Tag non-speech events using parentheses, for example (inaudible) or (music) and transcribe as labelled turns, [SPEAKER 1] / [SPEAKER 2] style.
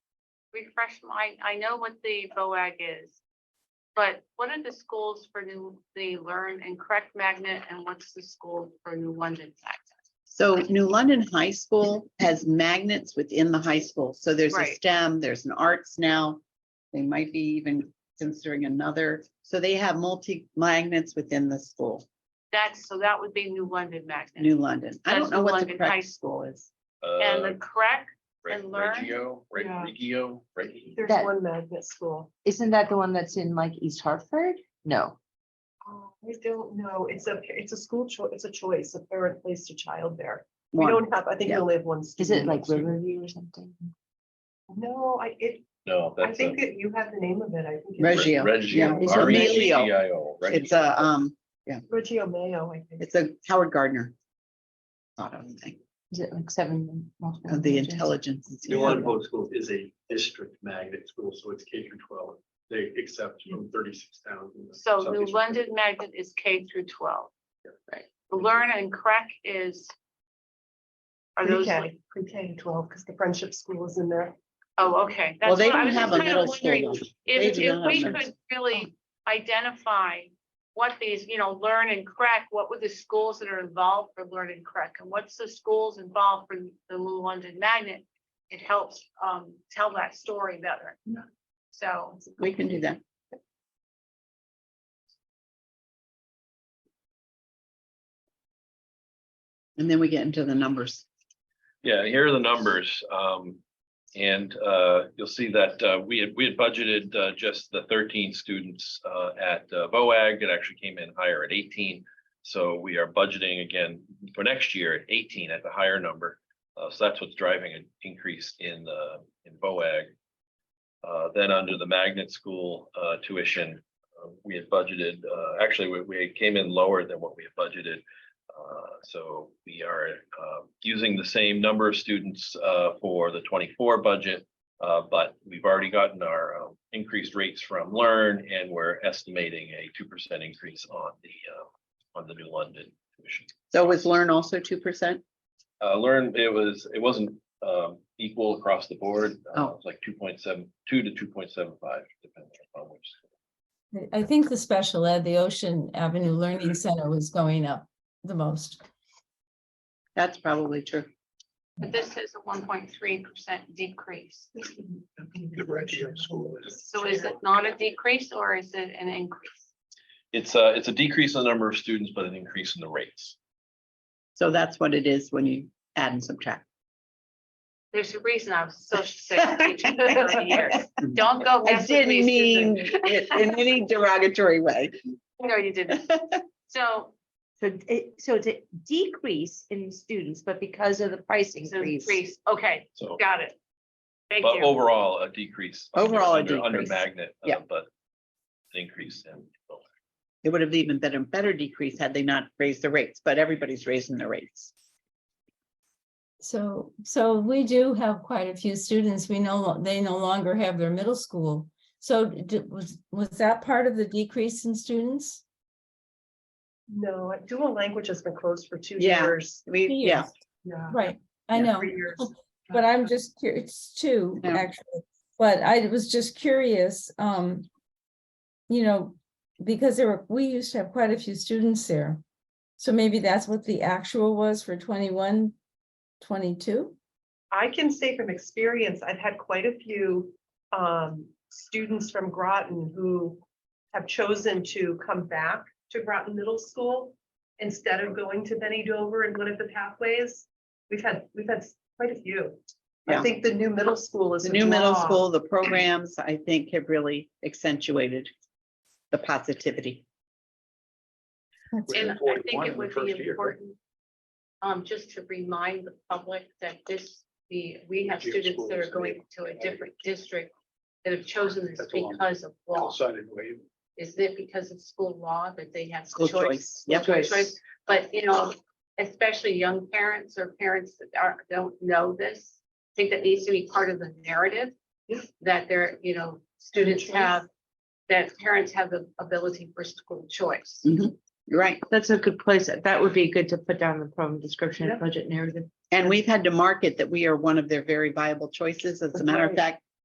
[SPEAKER 1] refresh my, I know what the BOAG is. But what are the schools for new, the Learn and Correct Magnet and what's the school for New London Magnet?
[SPEAKER 2] So New London High School has magnets within the high school. So there's a
[SPEAKER 1] Right.
[SPEAKER 2] STEM, there's an arts now. They might be even considering another. So they have multi magnets within the school,
[SPEAKER 1] That's, so that would be New London Magnet.
[SPEAKER 2] New London. I
[SPEAKER 1] That's
[SPEAKER 2] don't know
[SPEAKER 1] New
[SPEAKER 2] what the
[SPEAKER 1] London High
[SPEAKER 2] correct school is.
[SPEAKER 1] And
[SPEAKER 3] Uh,
[SPEAKER 1] the correct,
[SPEAKER 3] Re-
[SPEAKER 1] and learn.
[SPEAKER 3] Reggio, Reg-
[SPEAKER 4] Yeah.
[SPEAKER 3] Reggio, Reg-
[SPEAKER 4] There's
[SPEAKER 5] That-
[SPEAKER 4] one magnet school.
[SPEAKER 5] Isn't that the one that's in like East Hartford? No,
[SPEAKER 4] Oh, I don't know. It's a, it's a school choice, it's a choice, a parent placed a child there. We
[SPEAKER 2] One.
[SPEAKER 4] don't have, I think we
[SPEAKER 2] Yeah.
[SPEAKER 4] only have one.
[SPEAKER 5] is it
[SPEAKER 2] Mm-hmm.
[SPEAKER 4] student.
[SPEAKER 5] like Riverview or something?
[SPEAKER 4] No, I, it,
[SPEAKER 3] No,
[SPEAKER 4] I
[SPEAKER 3] that's. a-
[SPEAKER 4] think that you have the name of it. I think.
[SPEAKER 2] Reg-
[SPEAKER 4] it's
[SPEAKER 2] Reggio, yeah,
[SPEAKER 3] Reggio.
[SPEAKER 2] it's
[SPEAKER 3] R E
[SPEAKER 2] Emilio.
[SPEAKER 3] G G I O, Reggio.
[SPEAKER 2] It's a, um,
[SPEAKER 4] Reggio Mayo, I think.
[SPEAKER 2] it's a Howard Gardner. Thought of thing,
[SPEAKER 5] Is it like seven? multiple
[SPEAKER 2] of the
[SPEAKER 5] languages?
[SPEAKER 2] intelligence.
[SPEAKER 6] New London Public Schools is a district magnet school, so it's K through twelve. They accept from thirty-six thousand.
[SPEAKER 1] so New London Magnet is K through twelve.
[SPEAKER 5] Right.
[SPEAKER 1] The Learn and Correct is. Are those, like-
[SPEAKER 4] Pre-K, pre-K to twelve, because the friendship school is in there.
[SPEAKER 1] oh, okay.
[SPEAKER 2] Well,
[SPEAKER 1] that's
[SPEAKER 2] they
[SPEAKER 1] what I
[SPEAKER 2] don't
[SPEAKER 1] was just
[SPEAKER 2] have a
[SPEAKER 1] kind of
[SPEAKER 2] middle
[SPEAKER 1] wondering.
[SPEAKER 2] school. though. They
[SPEAKER 1] If,
[SPEAKER 2] do
[SPEAKER 1] if
[SPEAKER 2] not have
[SPEAKER 1] we
[SPEAKER 2] numbers.
[SPEAKER 1] could really identify what these, you know, learn and correct, what were the schools that are involved for learn and correct? And what's the schools involved for the New London Magnet? It helps, um, tell that story better.
[SPEAKER 4] Yeah.
[SPEAKER 1] So,
[SPEAKER 2] We can do that. And then we get into the numbers.
[SPEAKER 3] Yeah, here are the numbers. Um, and, uh, you'll see that, uh, we had, we had budgeted, uh, just the thirteen students, uh, at uh, VOAG. It actually came in higher at eighteen. So we are budgeting again for next year at eighteen at the higher number. Uh, so that's what's driving an increase in, uh, in VOAG. Uh, then under the magnet school, uh, tuition, uh, we had budgeted, uh, actually, we, we came in lower than what we had budgeted. Uh, So we are uh, using the same number of students uh, for the twenty-four budget. uh, But we've already gotten our uh, increased rates from Learn and we're estimating a two percent increase on the, uh, on the new London tuition.
[SPEAKER 2] So was Learn also two percent?
[SPEAKER 3] Uh, Learn, it was, it wasn't um, equal across the board. Uh,
[SPEAKER 2] Oh.
[SPEAKER 3] It was like two point seven, two to two point seven five, depending on which.
[SPEAKER 7] I- I think the special ed, the Ocean Avenue
[SPEAKER 5] Mm-hmm.
[SPEAKER 7] Learning Center was going up the most.
[SPEAKER 2] That's probably true.
[SPEAKER 1] but this is a one point three percent decrease.
[SPEAKER 6] The Reggio School is.
[SPEAKER 1] So is it not a decrease or is it an increase?
[SPEAKER 3] It's a, it's a decrease in the number of students, but an increase in the rates.
[SPEAKER 2] So that's what it is when you add and subtract.
[SPEAKER 1] There's a reason I was
[SPEAKER 2] (laughs)
[SPEAKER 1] a social studies teacher for thirty years. Don't go.
[SPEAKER 2] I
[SPEAKER 1] mess with me,
[SPEAKER 2] didn't
[SPEAKER 1] Susan.
[SPEAKER 2] mean it in any derogatory way.
[SPEAKER 1] No, you
[SPEAKER 2] (laughs)
[SPEAKER 1] didn't. So,
[SPEAKER 5] So it, so it's a decrease in students, but because of the price
[SPEAKER 1] it's an increase, okay,
[SPEAKER 3] So.
[SPEAKER 1] got it. Thank
[SPEAKER 3] But
[SPEAKER 1] you.
[SPEAKER 3] overall, a decrease. under-
[SPEAKER 2] Overall, a
[SPEAKER 3] under- Under
[SPEAKER 2] decrease.
[SPEAKER 3] magnet. uh,
[SPEAKER 2] Yeah.
[SPEAKER 3] But an increase in. both.
[SPEAKER 2] It would have even been a better decrease had they not raised the rates, but everybody's raising the rates.
[SPEAKER 7] So, so we do have quite a few students. We know they no longer have their middle school. So d- was, was that part of the decrease in students?
[SPEAKER 4] No, dual language has been closed for two
[SPEAKER 2] Yeah.
[SPEAKER 4] years.
[SPEAKER 2] We, yeah,
[SPEAKER 7] Yes,
[SPEAKER 4] Yeah.
[SPEAKER 7] Right, I
[SPEAKER 2] Yeah,
[SPEAKER 7] know,
[SPEAKER 4] Three years.
[SPEAKER 7] but I'm just curious too,
[SPEAKER 2] Yeah.
[SPEAKER 7] actually. But I was just curious, um, you know, because there were, we used to have quite a few students there. So maybe that's what the actual was for 21, 22?
[SPEAKER 4] I can say from experience, I've had quite a few um, students from Groton who have chosen to come back to Groton Middle School instead of going to Benny Dover and one of the pathways. We've had, we've had quite a few.
[SPEAKER 2] Yeah.
[SPEAKER 4] I think the new middle school is.
[SPEAKER 2] the new middle
[SPEAKER 4] law.
[SPEAKER 2] school, the programs, I think have really accentuated the positivity.
[SPEAKER 7] That's
[SPEAKER 1] And
[SPEAKER 6] Within
[SPEAKER 1] I
[SPEAKER 6] 41
[SPEAKER 1] think it
[SPEAKER 6] in the
[SPEAKER 1] would
[SPEAKER 6] first
[SPEAKER 1] be
[SPEAKER 6] year, right?
[SPEAKER 1] important, um, just to remind the public that this, the, we have
[SPEAKER 6] Reggio
[SPEAKER 1] students that
[SPEAKER 6] schools,
[SPEAKER 1] are going to a different district that have chosen this
[SPEAKER 6] That's a long-
[SPEAKER 1] because of law.
[SPEAKER 6] Decided way.
[SPEAKER 1] Is it because of school law that they have
[SPEAKER 2] School
[SPEAKER 1] choice?
[SPEAKER 2] choice. Yep.
[SPEAKER 1] School choice. But, you know, especially young parents or parents that are, don't know this, I think that needs to be part of the narrative. That their, you know, students
[SPEAKER 4] choice.
[SPEAKER 1] have, that parents have the ability for school choice.
[SPEAKER 2] You're Right.
[SPEAKER 5] That's a good place. That would be good to put down the program description
[SPEAKER 4] and
[SPEAKER 5] budget narrative.
[SPEAKER 2] And we've had to market that we are one of their very viable choices. As a matter of
[SPEAKER 4] Right.
[SPEAKER 2] fact,